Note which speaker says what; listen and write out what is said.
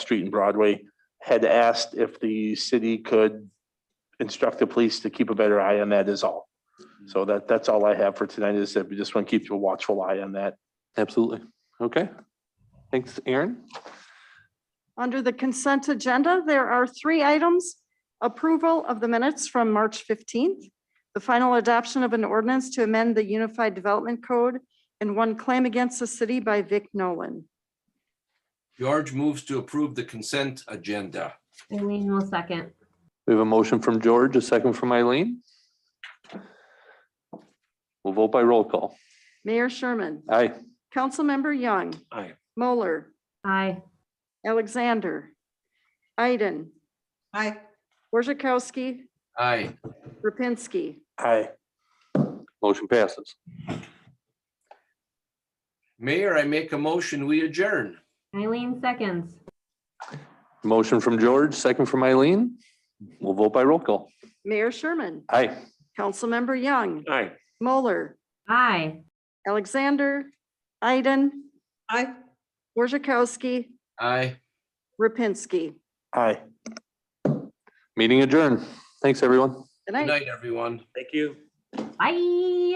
Speaker 1: Street and Broadway, had asked if the city could instruct the police to keep a better eye on that is all. So that, that's all I have for tonight is that we just want to keep a watchful eye on that.
Speaker 2: Absolutely. Okay. Thanks, Aaron.
Speaker 3: Under the consent agenda, there are three items. Approval of the minutes from March 15th, the final adoption of an ordinance to amend the Unified Development Code, and one claim against the city by Vic Nolan.
Speaker 4: George moves to approve the consent agenda.
Speaker 5: Eileen will second.
Speaker 2: We have a motion from George, a second from Eileen. We'll vote by roll call.
Speaker 3: Mayor Sherman,
Speaker 2: Aye.
Speaker 3: Councilmember Young,
Speaker 4: Aye.
Speaker 3: Moeller,
Speaker 5: Aye.
Speaker 3: Alexander, Iden,
Speaker 6: aye,
Speaker 3: Borzakowski,
Speaker 4: Aye.
Speaker 3: Rapinski.
Speaker 1: Aye.
Speaker 2: Motion passes.
Speaker 4: Mayor, I make a motion, we adjourn.
Speaker 5: Eileen seconds.
Speaker 2: Motion from George, second from Eileen. We'll vote by roll call.
Speaker 3: Mayor Sherman,
Speaker 2: Aye.
Speaker 3: Councilmember Young,
Speaker 4: Aye.
Speaker 3: Moeller,
Speaker 5: Aye.
Speaker 3: Alexander, Iden,
Speaker 6: aye.
Speaker 3: Borzakowski,
Speaker 4: Aye.
Speaker 3: Rapinski.
Speaker 1: Aye.
Speaker 2: Meeting adjourned. Thanks, everyone.
Speaker 3: Good
Speaker 4: Good
Speaker 3: night.
Speaker 4: night, everyone.
Speaker 5: Bye.